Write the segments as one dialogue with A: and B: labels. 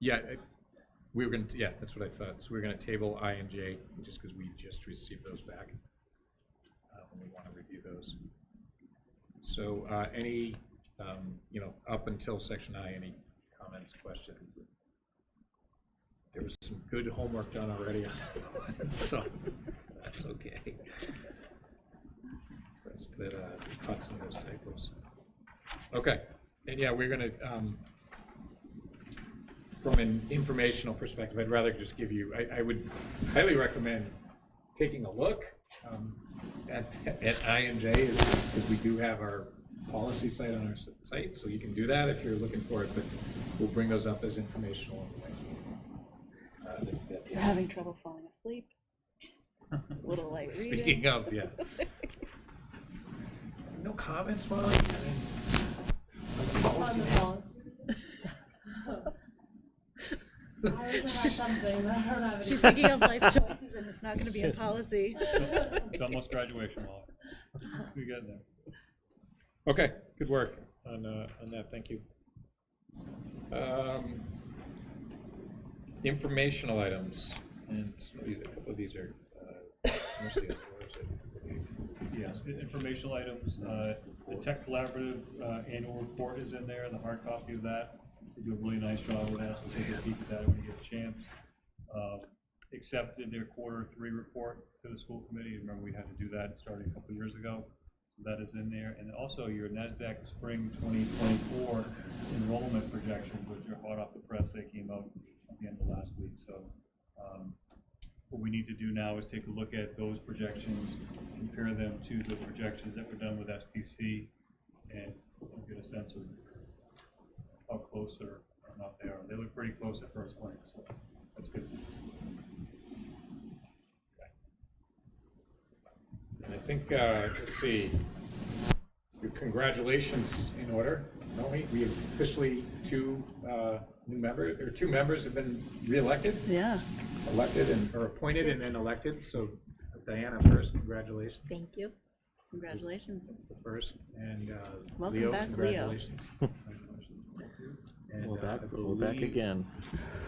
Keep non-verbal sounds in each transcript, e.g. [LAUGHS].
A: Yeah, I- we were gonna, yeah, that's what I thought. So we are gonna table I and J, just because we just received those back. Uh, and We want to review those. So uh, any, um, you know, up until section I, any comments, questions? There was some good homework done already, [LAUGHS] so that's okay. Rest That uh, caught some of those typos. Okay, and yeah, we're gonna, um, from an informational perspective, I'd rather just give you, I, I would highly recommend taking a look um, at, at I and J, because we do have our policy site on our s- site, so you can do that if you're looking for it, but we'll bring those up as informational. in the next meeting. Uh, that- that-
B: You're having trouble falling
C: [LAUGHS]
B: asleep. Little light reading.
A: Speaking of,
B: [LAUGHS]
A: yeah. No comments, Molly? I mean,
D: On the phone. I was about something, but I don't have any.
B: She's thinking of life choices and it's not gonna be a
C: [LAUGHS]
B: policy.
E: It's almost graduation, Wally. We got there.
A: Okay, good work on, uh, on that, thank you. Um, Informational items, and some of these, a couple of these are, uh, mostly on the website.
E: Yes, i- informational items, uh, the tech collaborative, uh, annual report is in there, the hard copy of that. They do a really nice job, I would ask to take a peek at that when you get a chance. Um, Accepted their quarter three report to the school committee, remember we had to do that starting a couple years ago. So That is in there, and also your NASDAQ spring twenty twenty-four enrollment projections, which are hot off the press, they came out at the end of last week, so. um, What we need to do now is take a look at those projections, compare them to the projections that were done with SPC, and get a sense of how close or or not they are. They look pretty close at first glance, so that's good.
A: And I think, uh, let's see, your congratulations in order, don't we? We officially, two, uh, new members, or two members have been reelected,
B: Yeah,
A: elected and, or appointed and then elected, so Diana first, congratulations.
B: thank you. Congratulations.
A: first, and uh,
B: Welcome
A: Leo,
B: back, Leo.
C: [LAUGHS]
A: congratulations. And,
C: We're
A: uh,
C: back,
A: I
C: we're back
A: believe-
C: again.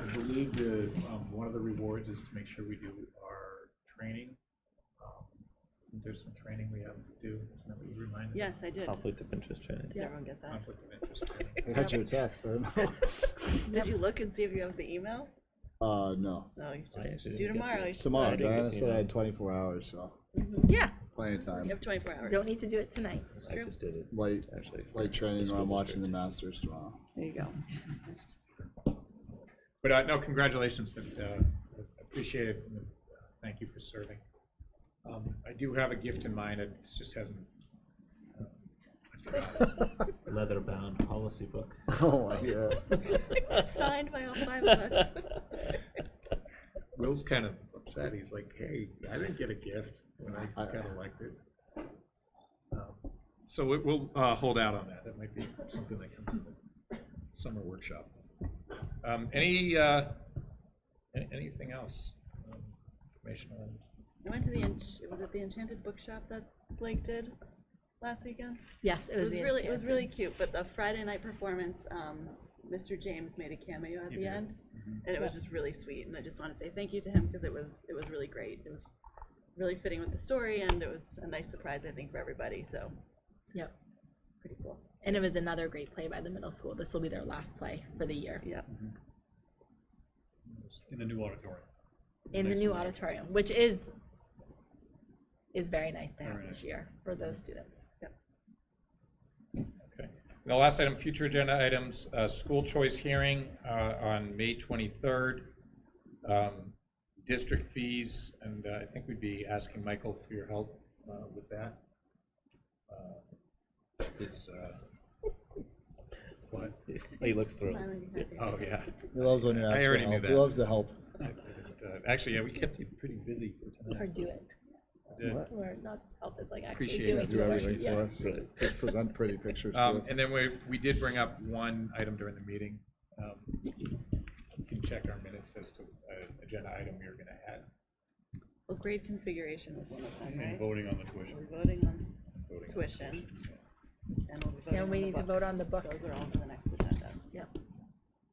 A: I believe the, um, one of the rewards is to make sure we do our training. Um, There's some training we have to do, isn't that what you reminded us?
B: Yes, I did.
C: Conflict of interest training.
B: Did everyone get that?
A: Conflict of interest training.
F: I got your text. I don't know. [LAUGHS]
B: Did you look and see if you have the email?
F: Uh, no.
B: No, you
C: I
B: should
C: actually
B: do
C: didn't get
B: tomorrow.
C: this.
B: You should-
F: Tomorrow,
C: I didn't
F: Diana
C: get the
F: said I
C: email.
F: had 24 hours, so
B: Yeah,
F: plenty of
B: you
F: time.
B: have twenty-four hours.
D: Don't need to do it tonight.
C: I just did it,
F: Light,
C: actually.
F: light training
C: This
F: while I'm
C: will be
F: watching the Masters tomorrow. [LAUGHS]
B: There you go.
C: [LAUGHS]
A: But uh, no, congratulations, and, uh, appreciate it, and, uh, thank you for serving. Um, I do have a gift in mind, it just hasn't. um, I forgot.
C: Leather-bound policy book.
F: Oh my
C: [LAUGHS]
F: god.
B: Signed by all five of us. [LAUGHS]
A: Will's kind of upset, he's like, hey, I didn't get a gift when I got elected. Um, So we- we'll uh, hold out on that, that might be something that comes in the summer workshop. Um, Any, uh, an- anything else? um, Informational?
B: I went to the, ench- was it the Enchanted Bookshop that Blake did last weekend?
D: Yes,
B: It was really, it was really cute, but the Friday night performance, um, Mr. James made a cameo at
A: He
B: the
A: did.
B: end. And it was just really sweet, and I just want to say thank you to him because it was, it was really great. It was really fitting with the story and it was a nice surprise, I think, for everybody, so
D: Yep.
B: pretty cool.
D: And it was another great play by the middle school. This will be their last play for the year
B: Yeah,
E: In the new auditorium.
D: in the new
E: Excellent.
D: auditorium, which is is very nice to have
E: Very
D: this
E: nice.
D: year for those students.
A: Okay. And the last item, future agenda items, uh, school choice hearing uh, on May 23rd. um, District fees, and uh, I think we'd be asking Michael for your help uh, with that. Uh, It's, uh, what?
C: Oh, He looks thrilled.
B: Finally, you have your-
A: Oh, yeah.
F: He loves when you
A: I
F: ask for
A: already knew
F: help. He
A: that.
F: loves the help.
A: Uh, Actually, yeah, we kept you pretty busy for
D: Or
A: tonight.
D: do it.
A: Yeah.
D: Or not just help, it's like actually
A: Appreciate
D: do
A: it.
D: it.
F: Do
D: your
F: everything
D: work.
F: for
D: Yes.
F: us. Just present pretty pictures to
A: Um,
F: us.
A: and then we, we did bring up one item during the meeting. Um, You can check our minutes as to uh, agenda item we were gonna add.
B: well, grade configuration was one of them,
E: And
A: Mm-hmm.
B: right?
E: voting on the tuition.
B: We're voting on
A: voting.
B: tuition. And we'll be
D: Yeah,
B: voting on
D: we
B: the
D: need to vote
B: books.
D: on the book.
B: Those are all for the next agenda.
D: Yep.